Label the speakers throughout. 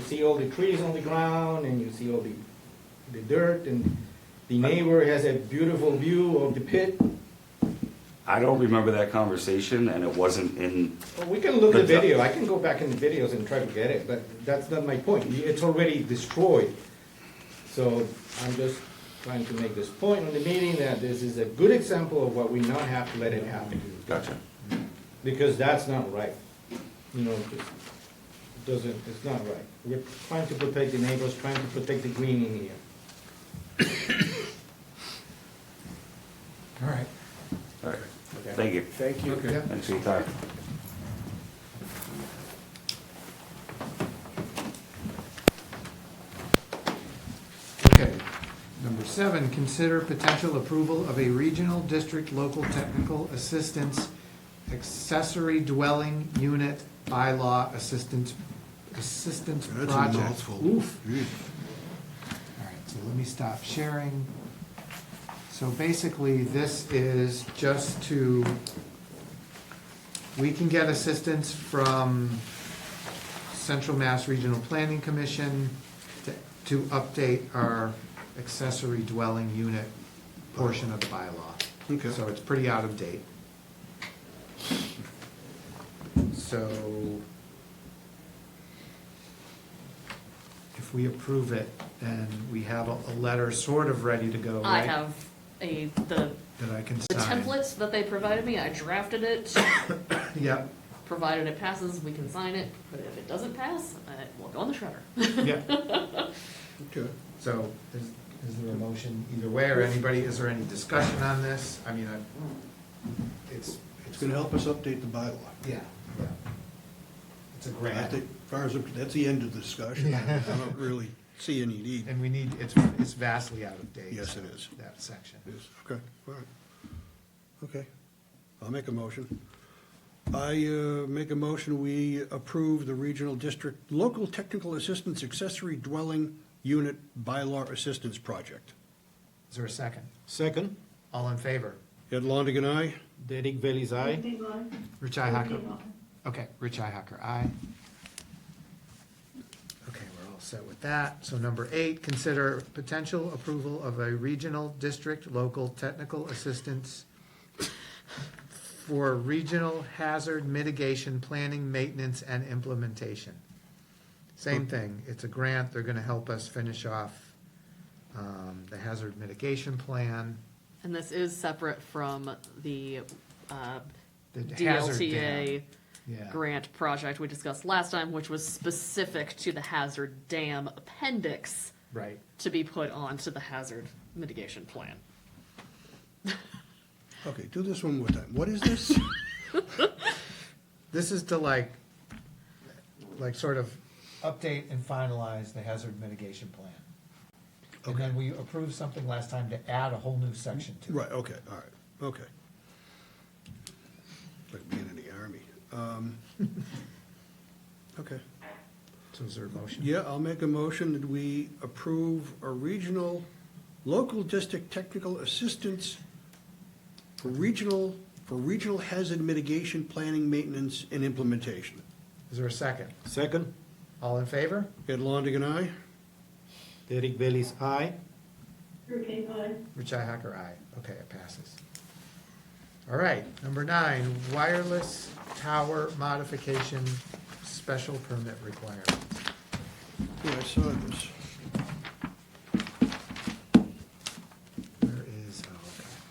Speaker 1: see all the trees on the ground, and you see all the, the dirt, and the neighbor has a beautiful view of the pit.
Speaker 2: I don't remember that conversation, and it wasn't in,
Speaker 1: Well, We can look at the
Speaker 2: Good job.
Speaker 1: video, I can go back in the videos and try to get it, but that's not my point, it's already destroyed. So I'm just trying to make this point on the meeting that this is a good example of what we not have to let it happen,
Speaker 2: gotcha.
Speaker 1: because that's not right. You know, it just doesn't, it's not right. We're trying to protect the neighbors, trying to protect the green in here.
Speaker 3: All right.
Speaker 2: All right, thank you.
Speaker 1: Thank
Speaker 3: you. Okay.
Speaker 2: Thanks for your time.
Speaker 3: Okay. Number seven, consider potential approval of a regional district local technical assistance accessory dwelling unit bylaw assistance, assistance
Speaker 4: That's
Speaker 3: project.
Speaker 4: a mouthful.
Speaker 3: Oof.
Speaker 4: Jeez.
Speaker 3: All right, so let me stop sharing. So basically, this is just to, we can get assistance from Central Mass Regional Planning Commission to, to update our accessory dwelling unit portion of the bylaw.
Speaker 4: Okay.
Speaker 3: So it's pretty out of date. So if we approve it, then we have a, a letter sort of ready to go,
Speaker 5: I
Speaker 3: right?
Speaker 5: have a, the,
Speaker 3: That I can
Speaker 5: the
Speaker 3: sign.
Speaker 5: templates that they provided me, I drafted it,
Speaker 3: Yep,
Speaker 5: provided it passes, we can sign it, but if it doesn't pass, it will go on the shredder.
Speaker 3: yep.
Speaker 4: Okay.
Speaker 3: So is, is there a motion either way, or anybody, is there any discussion on this? I mean, I, it's,
Speaker 4: It's gonna help us update the bylaw.
Speaker 3: yeah, yeah. It's a
Speaker 4: I
Speaker 3: grant,
Speaker 4: think, as far as, that's the end of the discussion.
Speaker 3: Yeah.
Speaker 4: I don't really see any need.
Speaker 3: and we need, it's, it's vastly out of date.
Speaker 4: Yes, it is.
Speaker 3: That section.
Speaker 4: Yes, Okay, all right. Okay, I'll make a motion. I uh, make a motion, we approve the regional district local technical assistance accessory dwelling unit bylaw assistance project.
Speaker 3: Is there a second?
Speaker 1: Second,
Speaker 3: All in favor?
Speaker 4: Ed Longigan, aye?
Speaker 1: Derek Bailey's eye.
Speaker 3: Rich Ihacker? Okay, Rich Ihacker, aye. Okay, we're all set with that. So number eight, consider potential approval of a regional district local technical assistance for regional hazard mitigation, planning, maintenance, and implementation. Same thing, it's a grant, they're gonna help us finish off, um, the hazard mitigation plan,
Speaker 5: And this is separate from the, uh,
Speaker 3: the hazard dam.
Speaker 5: DLTA
Speaker 3: Yeah.
Speaker 5: grant project we discussed last time, which was specific to the hazard dam appendix
Speaker 3: Right.
Speaker 5: to be put onto the hazard mitigation plan.
Speaker 4: Okay, do this one more time. What is this?
Speaker 3: This is to like, like sort of update and finalize the hazard mitigation plan. And then we approved something last time to add a whole new section to it.
Speaker 4: Right, okay, all right, okay. Like being in the army. Um, Okay.
Speaker 3: So is there a motion?
Speaker 4: Yeah, I'll make a motion that we approve a regional, local district technical assistance for regional, for regional hazard mitigation, planning, maintenance, and implementation.
Speaker 3: Is there a second?
Speaker 1: Second,
Speaker 3: All in favor?
Speaker 4: Ed Longigan, aye?
Speaker 1: Derek Bailey's eye.
Speaker 3: Richi Hacker, aye. Okay, it passes. All right, number nine, wireless tower modification special permit requirement.
Speaker 4: Yeah, I saw this.
Speaker 3: Where is,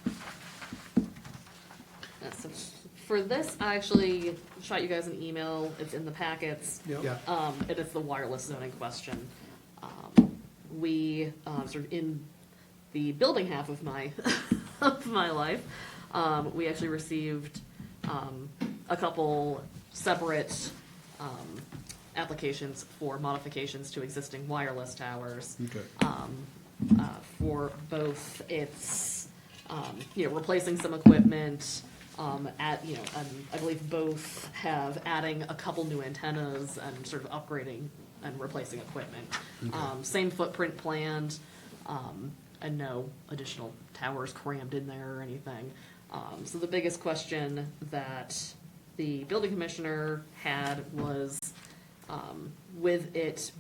Speaker 3: oh,
Speaker 5: Uh, so For this, I actually shot you guys an email, it's in the packets.
Speaker 4: Yep.
Speaker 3: okay. Yeah,
Speaker 5: Um, it is the wireless zoning question. Um, We, uh, sort of in the building half of my, of my life, um, we actually received, um, a couple separate, um, applications for modifications to existing wireless towers
Speaker 4: Okay.
Speaker 5: uh, for both its, um, you know, replacing some equipment, um, at, you know, um, I believe both have adding a couple new antennas and sort of upgrading and replacing equipment. Um, same footprint planned, um, and no additional towers crammed in there or anything. Um, so the biggest question that the building commissioner had was, um, with it